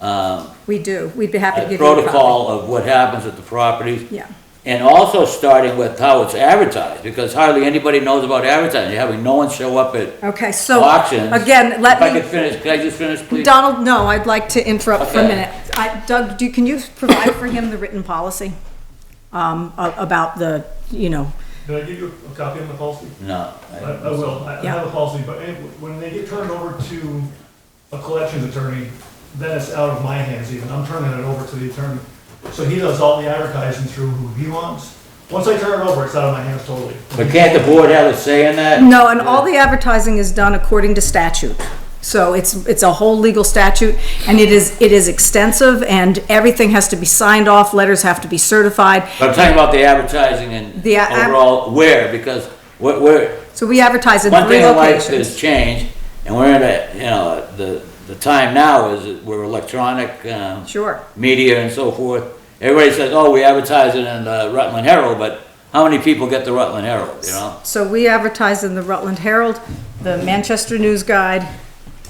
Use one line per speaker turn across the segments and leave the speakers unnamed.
um,
We do. We'd be happy to
a
give you a copy.
protocol of what happens at the properties.
Yeah.
And also starting with how it's advertised, because hardly anybody knows about advertising, you're having no one show up at
Okay, so,
auctions.
again,
If I could
let
finish, could I just finish,
me,
please?
Donald, no, I'd like to interrupt for a
Okay.
minute. I- Doug, do, can you provide for him the written policy? Um, a- about the, you know,
Can I give you a copy of the policy?
No.
I,
I-
I will, I I
Yeah.
have a policy, but eh, when they get turned over to a collections attorney, then it's out of my hands even, I'm turning it over to the attorney. So he does all the advertising through who he wants. Once I turn it over, it's out of my hands totally.
But can't the board have a say in that?
no, and all the advertising is done according to statute. So it's, it's a whole legal statute and it is, it is extensive and everything has to be signed off, letters have to be certified.
But I'm talking about the advertising and
The uh, a-
overall where, because where, where,
So we advertise in
one
three
thing in life has
locations.
changed, and we're in a, you know, the, the time now is that we're electronic, um,
Sure.
media and so forth. Everybody says, oh, we advertise it in the Rutland Herald, but how many people get the Rutland Herald, you know?
So we advertise in the Rutland Herald, the Manchester News Guide,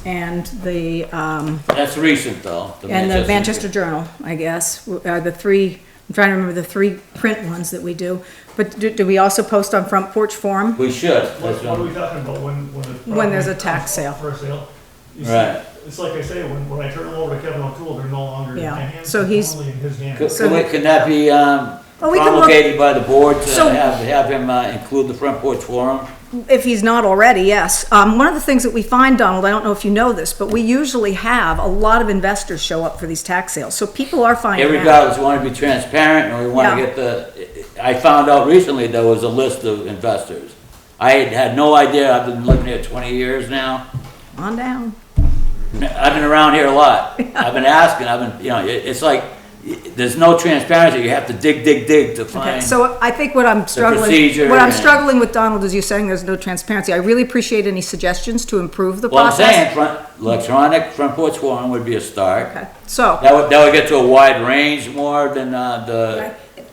and the, um,
That's recent, though.
And the Manchester Journal, I guess, w- are the three, I'm trying to remember the three print ones that we do. But do, do we also post on Front Porch Forum?
We should.
What,
That's
what are
what-
we talking about when, when? the
When there's a
property
tax sale.
comes For sale. You see,
Right.
It's like I say, when, when I turn them over to Kevin O'Toole, they're no longer in
Yeah.
my hands,
So
they're
he's-
only in his
Could-
hands.
So-
Can we- can that be um,
Oh, we can look-
promulgated by the board to
So-
have, have him uh, include the Front Porch Forum?
If he's not already, yes. Um, one of the things that we find, Donald, I don't know if you know this, but we usually have a lot of investors show up for these tax sales. So people are
Yeah,
finding out.
regardless, we want to be transparent, and we want
Yeah.
to get the, I found out recently there was a list of investors. I had had no idea, I've been living here twenty years now,
On down.
I've been around here a lot. I've been asking, I've been, you know, it- it's like, y- there's no transparency, you have to dig, dig, dig to
Okay,
find.
so I think what I'm struggling,
procedure
what I'm
and-
struggling with, Donald, is you saying there's no transparency. I really appreciate any suggestions to improve the
Well, I'm
process.
saying, front, electronic front porch forum would be a start.
Okay, so
That would, that would get to a wide range more than, uh, the.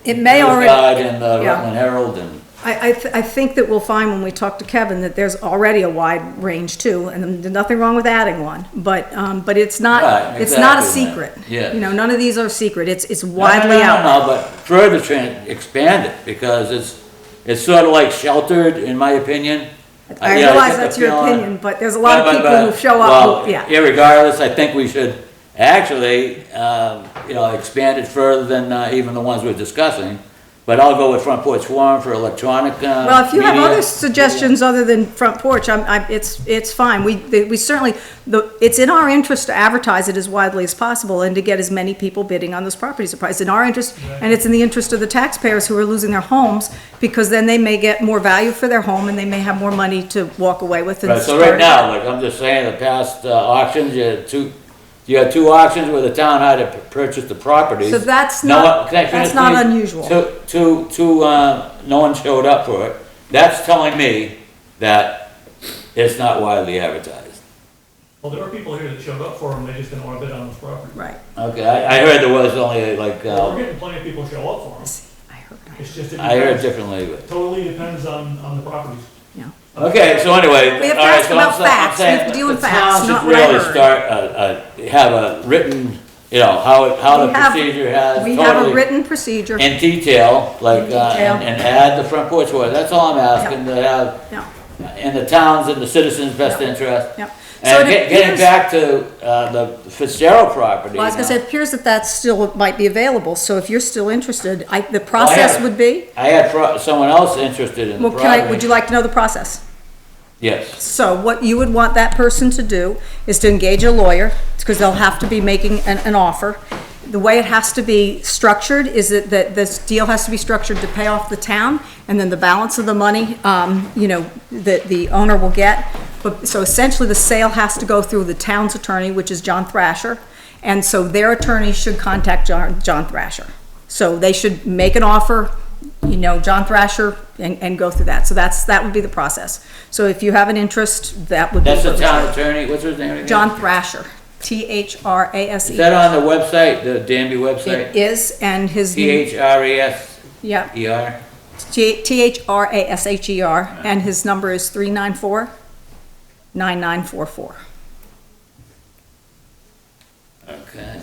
it may
News
already.
Guide and the
yeah.
Rutland Herald and.
I, I, th- I think that we'll find when we talk to Kevin that there's already a wide range too, and there's nothing wrong with adding one, but, um, but it's not,
Right,
it's not a
exactly,
secret.
yeah.
You know, none of these are secret, it's, it's
No, no,
widely
no,
out.
No, but further tran, expand it, because it's, it's sort of like sheltered, in my opinion.
I
yeah,
realize
get the
that's your
feeling-
opinion, but there's a lot of
But- but-
people who
but-
show up,
well,
who- yeah.
Irregardless, I think we should actually, um, you know, expand it further than uh, even the ones we're discussing. But I'll go with front porch forum for electronic, uh,
Well, if you have
media.
other suggestions other than front porch, I'm, I'm, it's, it's fine, we, the- we certainly, the, it's in our interest to advertise it as widely as possible and to get as many people bidding on those properties as possible. It's in our interest, and it's in the interest of the taxpayers who are losing their homes, because then they may get more value for their home and they may have more money to walk away with and
Right, so right
start-
now, like I'm just saying, the past uh, auctions, you had two, you had two auctions where the town had to purchase the properties.
So that's
No
not-
one- can I finish,
that's not
please?
unusual.
Two, two, two, uh, no one showed up for it. That's telling me that it's not widely advertised.
Well, there are people here that showed up for them, they just didn't wanna bid on this property.
Right,
Okay, I, I heard there was only like,
We're
uh,
getting plenty of people show up for them.
I heard, that.
It's just. it
I heard
depends.
differently, but,
Totally depends on, on the properties.
yeah.
okay, so anyway.
We have to
all right,
ask
so I'm
about
sa- I'm
facts. We have
saying
to deal with
the
facts,
town should
not what I
really
heard.
Start, uh, uh, have a written, you know, how, it- how the
We have-
procedure has totally.
We have a written procedure,
In detail, like, uh, and and add the front porch order, that's all I'm asking, to have,
yeah,
in the towns and the citizens' best interest.
yeah. So it
And get- getting
appears-
back to, uh, the Fitzgerald property.
Well, I was gonna say, it appears that that still might be available, so if you're still interested, I, the
Well, I
process
had-
would be?
I had pro- someone else interested in the
Well, can I, would you
property.
like to know the process?
Yes,
So what you would want that person to do is to engage a lawyer, because they'll have to be making an, an offer. The way it has to be structured is that, that this deal has to be structured to pay off the town, and then the balance of the money, um, you know, that the owner will get. But, so essentially, the sale has to go through the town's attorney, which is John Thrasher, and so their attorney should contact John, John Thrasher. So they should make an offer, you know, John Thrasher, and, and go through that. So that's, that would be the process. So if you have an interest, that would be.
that's the town attorney, what's his name again?
John Thrasher, T-H-R-A-S-E.
Is that on the website, the Danby
E. It
website?
is, and his.
T H R E S
Yeah,
E R? E.
T- T-H-R-A-S-H-E-R, E and his number is three nine four nine nine four four.
Okay,